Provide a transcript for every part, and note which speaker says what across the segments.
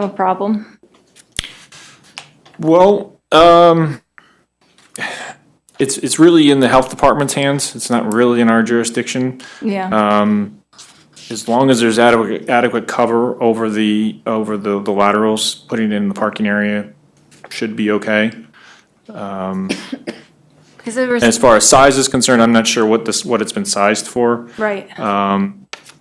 Speaker 1: have a problem.
Speaker 2: Well, um, it's, it's really in the health department's hands. It's not really in our jurisdiction.
Speaker 1: Yeah.
Speaker 2: As long as there's adequate, adequate cover over the, over the, the laterals, putting it in the parking area should be okay.
Speaker 1: Because there was,
Speaker 2: As far as size is concerned, I'm not sure what this, what it's been sized for.
Speaker 1: right.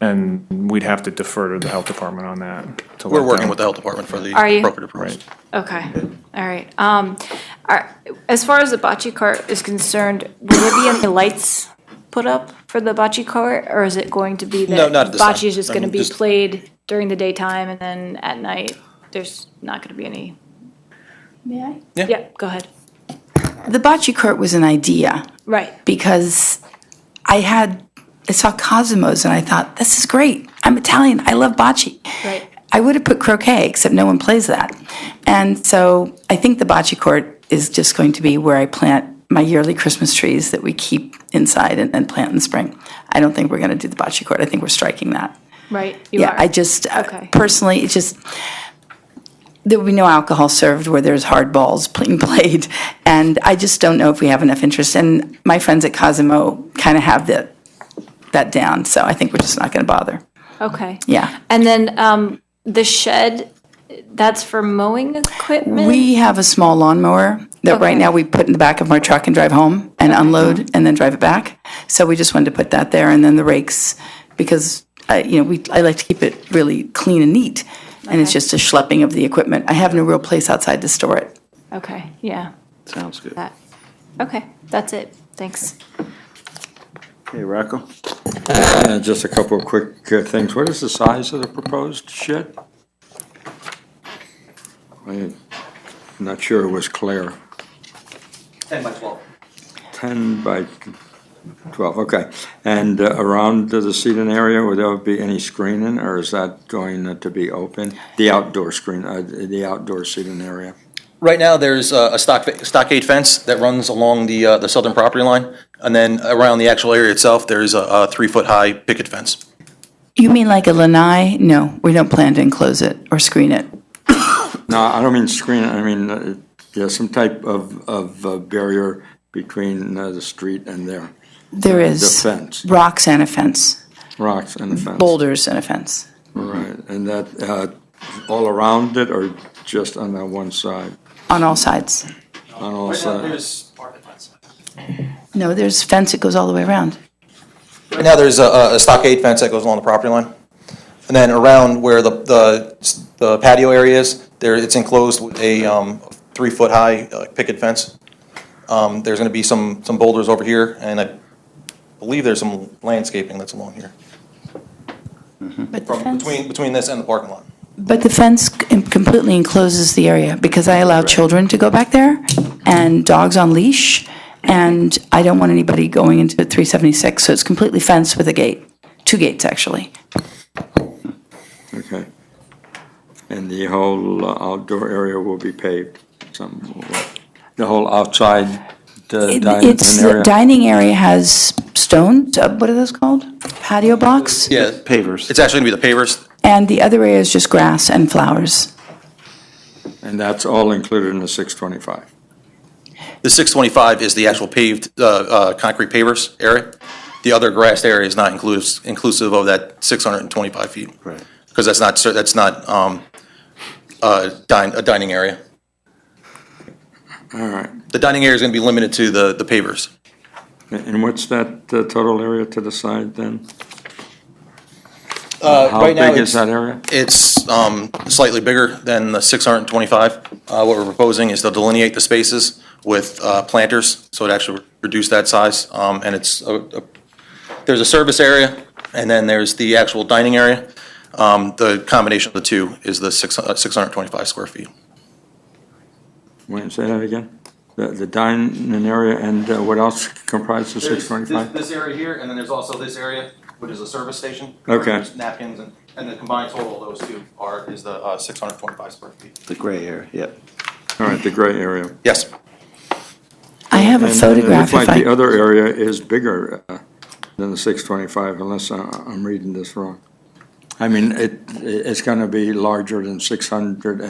Speaker 2: And we'd have to defer to the health department on that. to
Speaker 3: We're
Speaker 2: let
Speaker 3: working
Speaker 2: them-
Speaker 3: with the health department for the
Speaker 1: Are you?
Speaker 3: appropriate approvals.
Speaker 2: Right.
Speaker 1: Okay, all right. Um, are- As far as the bocce court is concerned, will there be any lights put up for the bocce court? Or is it going to be
Speaker 3: No,
Speaker 1: that
Speaker 3: not at this time.
Speaker 1: bocce is just
Speaker 3: I
Speaker 1: going to
Speaker 3: mean,
Speaker 1: be
Speaker 3: just-
Speaker 1: played during the daytime and then at night, there's not going to be any?
Speaker 4: May I?
Speaker 1: Yeah, go ahead.
Speaker 4: The bocce court was an idea
Speaker 1: Right,
Speaker 4: because I had, I saw Cosmos and I thought, this is great. I'm Italian. I love bocce.
Speaker 1: right.
Speaker 4: I would have put croquet, except no one plays that. And so I think the bocce court is just going to be where I plant my yearly Christmas trees that we keep inside and, and plant in the spring. I don't think we're going to do the bocce court. I think we're striking that.
Speaker 1: Right, you
Speaker 4: Yeah,
Speaker 1: are.
Speaker 4: I just, uh,
Speaker 1: Okay.
Speaker 4: personally, it just, there will be no alcohol served where there's hard balls being played. And I just don't know if we have enough interest. And my friends at Cosmo kind of have that, that down, so I think we're just not going to bother.
Speaker 1: Okay.
Speaker 4: Yeah.
Speaker 1: And then um, the shed, that's for mowing equipment?
Speaker 4: We have a small lawnmower that right
Speaker 1: Okay.
Speaker 4: now we put in the back of our truck and drive home and unload and then drive it back. So we just wanted to put that there and then the rakes, because, uh, you know, we, I like to keep it really clean and neat. And it's just a schlepping of the equipment. I have no real place outside to store it.
Speaker 1: Okay, yeah,
Speaker 5: Sounds good.
Speaker 1: that. Okay, that's it. Thanks.
Speaker 5: Hey, Rocco? Uh, Just a couple of quick uh, things. What is the size of the proposed shed? I'm not sure it was clear.
Speaker 6: 10 by 12.
Speaker 5: 10 by 12, okay. And uh, around the seating area, would there be any screening, or is that going to be open? The outdoor screen, uh, the outdoor seating area?
Speaker 3: Right now, there's uh, a stock stockade fence that runs along the uh, the southern property line, and then around the actual area itself, there's a- a three-foot-high picket fence.
Speaker 4: You mean like a lanai? No, we don't plan to enclose it or screen it.
Speaker 5: No, I don't mean screen, I mean, uh, yeah, some type of, of uh, barrier between uh, the street and there,
Speaker 4: There is
Speaker 5: fence.
Speaker 4: rocks and a fence,
Speaker 5: rocks and a fence.
Speaker 4: boulders and a fence.
Speaker 5: Right, and that, uh, all around it or just on that one side?
Speaker 4: On all sides.
Speaker 5: On all
Speaker 6: Right now,
Speaker 5: sides?
Speaker 6: there's part of the fence.
Speaker 4: No, there's fence that goes all the way around.
Speaker 3: Right now, there's a a stockade fence that goes along the property line, and then around where the- the the patio area is, there, it's enclosed with a um, three-foot-high uh, picket fence. Um, There's going to be some some boulders over here, and I believe there's some landscaping that's along here,
Speaker 4: But the
Speaker 3: from
Speaker 4: fence-
Speaker 3: between between this and the parking lot.
Speaker 4: But the fence com- completely encloses the area because I allow children to go back there and dogs on leash. And I don't want anybody going into 376, so it's completely fenced with a gate, two gates actually.
Speaker 5: Okay. And the whole uh, outdoor area will be paved, some, the whole outside uh,
Speaker 4: It-
Speaker 5: dining
Speaker 4: It's, the
Speaker 5: area?
Speaker 4: dining area has stones, uh, what are those called? Patio blocks?
Speaker 3: Yeah,
Speaker 5: Pavers.
Speaker 3: it's actually going to be the pavers.
Speaker 4: And the other area is just grass and flowers.
Speaker 5: And that's all included in the 625?
Speaker 3: The 625 is the actual paved, uh, uh, concrete pavers area. The other grassed area is not inclusive, inclusive of that 625 feet. Right. Because that's not, cer- that's not um, uh, din- a dining area.
Speaker 5: All right.
Speaker 3: The dining area is going to be limited to the the pavers.
Speaker 5: And what's that uh, total area to the side then? How big is that area?
Speaker 3: It's um, slightly bigger than the 625. Uh, What we're proposing is to delineate the spaces with uh, planters, so it actually reduce that size. Um, And it's, a- a- there's a service area, and then there's the actual dining area. Um, The combination of the two is the six- uh, 625 square feet.
Speaker 5: Wait, say that again? The, the dining area and uh, what else comprises six twenty-five?
Speaker 3: This area here, and then there's also this area, which is a service station.
Speaker 5: Okay. There's
Speaker 3: Napkins, and the combined total of those two are, is the uh, 625 square feet.
Speaker 6: The gray area, yep.
Speaker 5: All right, the gray area.
Speaker 3: Yes.
Speaker 4: I have a
Speaker 5: And then
Speaker 4: photograph
Speaker 5: It looks
Speaker 4: if
Speaker 5: like the
Speaker 4: I,
Speaker 5: other area is bigger uh, than the six twenty-five, unless I- I'm reading this wrong. I mean, it, it's gonna be larger than six hundred